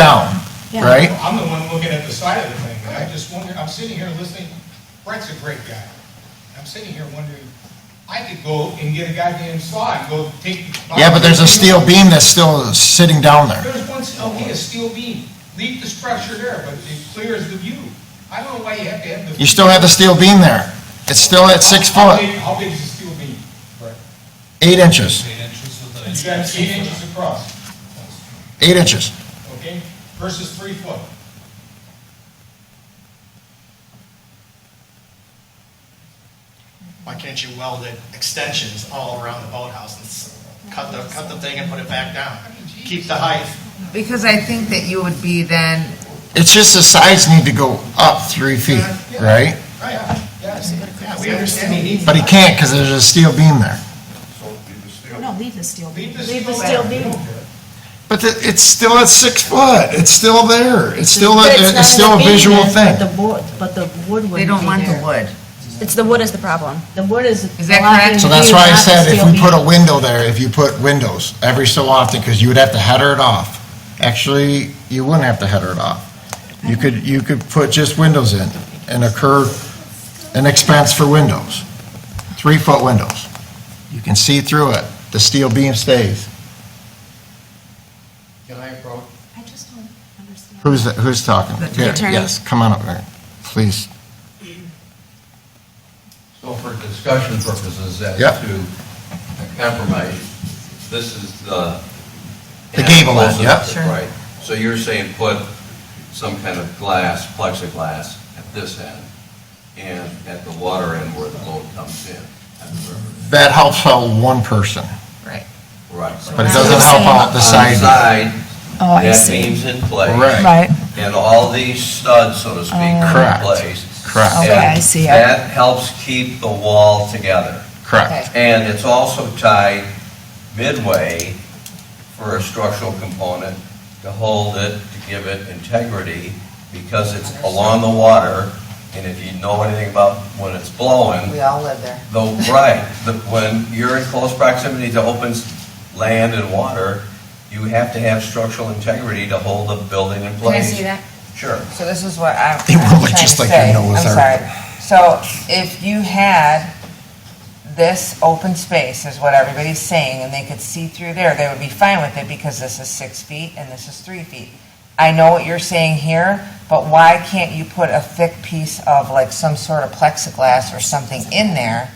down, Yeah. right? I'm the one looking at the side of the thing, and I just wonder, I'm sitting here listening, Brett's a great guy. I'm sitting here wondering, I could go and get a goddamn saw and go take. Yeah, but there's a steel beam that's still sitting down there. There's one, okay, a steel beam, leave the structure there, but it clears the view. I don't know why you have to have the. You still have the steel beam there. It's still at six How foot, big- How big is the steel beam? Brett? eight inches, Eight inches with an You got eight inches across, eight inches. okay, versus three foot. Why can't you weld the extensions all around the boathouse and s- cut the, cut the thing and put it back down? Keep the height. Because I think that you would be then, It's just the sides need to go up three feet, right? Right, yes, yeah, we understand you need. But he can't because there's a steel beam there. No, leave the steel beam. Leave the steel beam. But the- it's still at six foot. It's still there. It's still, a- But not it's still a in the visual beam, thing. But the wood, but the wood would be they don't want the there. wood. It's the wood is the problem. The wood is. Is that blocking correct? So the that's view, why I not the said if steel we beam. put a window there, if you put windows every so often, because you would have to header it off. Actually, you wouldn't have to header it off. You could, you could put just windows in and occur an expense for windows, three-foot windows. You can see through it. The steel beam stays. Can I approach? I just don't understand. Who's, that- who's talking? The- the Here, attorney. Yes, come on up there, please. So for discussion purposes, as Yep. to compromise, this is the. The gable end, yep. Close enough, Sure. Right. So you're saying put some kind of glass, plexiglass at this end and at the water end where the boat comes in at the river. That helps out one person, Right. so but it doesn't help out the on the side. Side, Oh, I that see. beam's in place. Right. Right, And all these studs, so to speak, are Correct. in place. Correct. Okay, And I see. That helps keep the wall together. Correct. And it's also tied midway for a structural component to hold it, to give it integrity, because it's along the water, and if you know anything about when it's blowing, We all live there. the, right, the, when you're in close proximity to open s- land and water, you have to have structural integrity to hold the building in Can I place. see that? Sure. So this is what I'm They I'm were trying to just like say. your Noah's I'm Ark. sorry. So if you had this open space is what everybody's saying, and they could see through there, they would be fine with it because this is six feet and this is three feet. I know what you're saying here, but why can't you put a thick piece of like some sort of plexiglass or something in there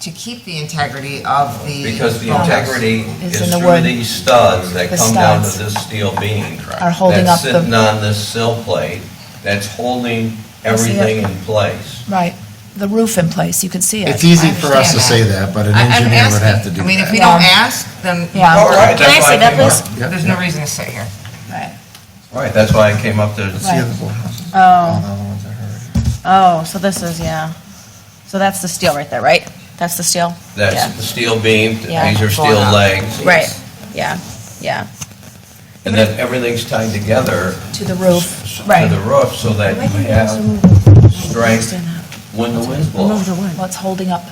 to keep the integrity of the? Because the homes? integrity It's is in the through wood. these studs that The come down to studs this steel beam. Are holding up the- That's sitting on this sill plate, that's holding see it. everything in place. right. The roof in place, you can see it. It's easy for us to say that, but an I- I'm engineer would have to asking. do I mean, if that. we don't ask, then Yeah. All right, Can I that's see why that, came up- please? Yep. there's no reason to sit here. Right. Right, that's why I came up to, See Right. the little houses? All Oh, the other ones I heard. oh, so this is, yeah. So that's the steel right there, right? That's the steel? Yeah. that's the steel beam, Yeah. these are steel legs, Right, yeah, yeah. and then everything's tied together To the s- roof, to right. the roof so that you have strength when the wind blows. Well, it's holding up,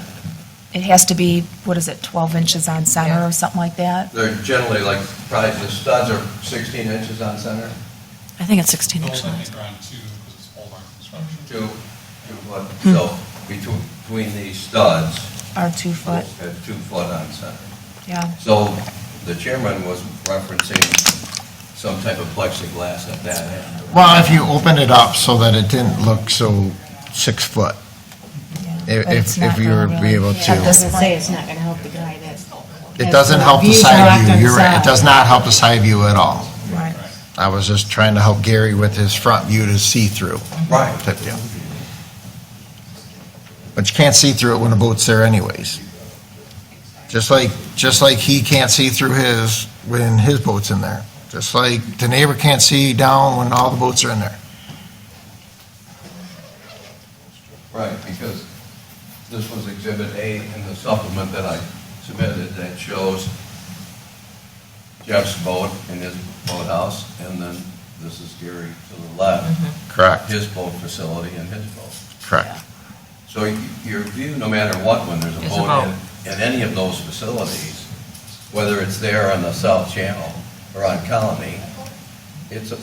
it has to be, what is it, 12 inches on center or something like that? They're generally like, probably the studs are 16 inches on center I think it's 16 Those inches. I think are on two, because it's all on construction. to, to what, so between, between these studs, Or two foot, Oh. At two foot on center. yeah. So the chairman was referencing some type of plexiglass at that end. Well, if you open it up so that it didn't look so six foot, if, But it's if- if not you were gonna be really- able At to. this point, it's not gonna help the guy that's. It doesn't help the Views side blocked on view, the you're right, it side. does not help the side view at all. right. I was just trying to help Gary with his front view to see through Mm-hmm. Right. type deal. But you can't see through it when the boat's there anyways. Just like, just like he can't see through his when his boat's in there. Just like the neighbor can't see down when all the boats are in there. Right, because this was Exhibit A in the supplement that I submitted that shows Jeff's boat in his boathouse, and then this is Gary to the Mm-hmm. left, Correct, his boat facility and his boat. correct. So y- your view, no matter what, when there's a It's a boat in, in any of those facilities, whether it's there on the South Channel or on Colony, it's a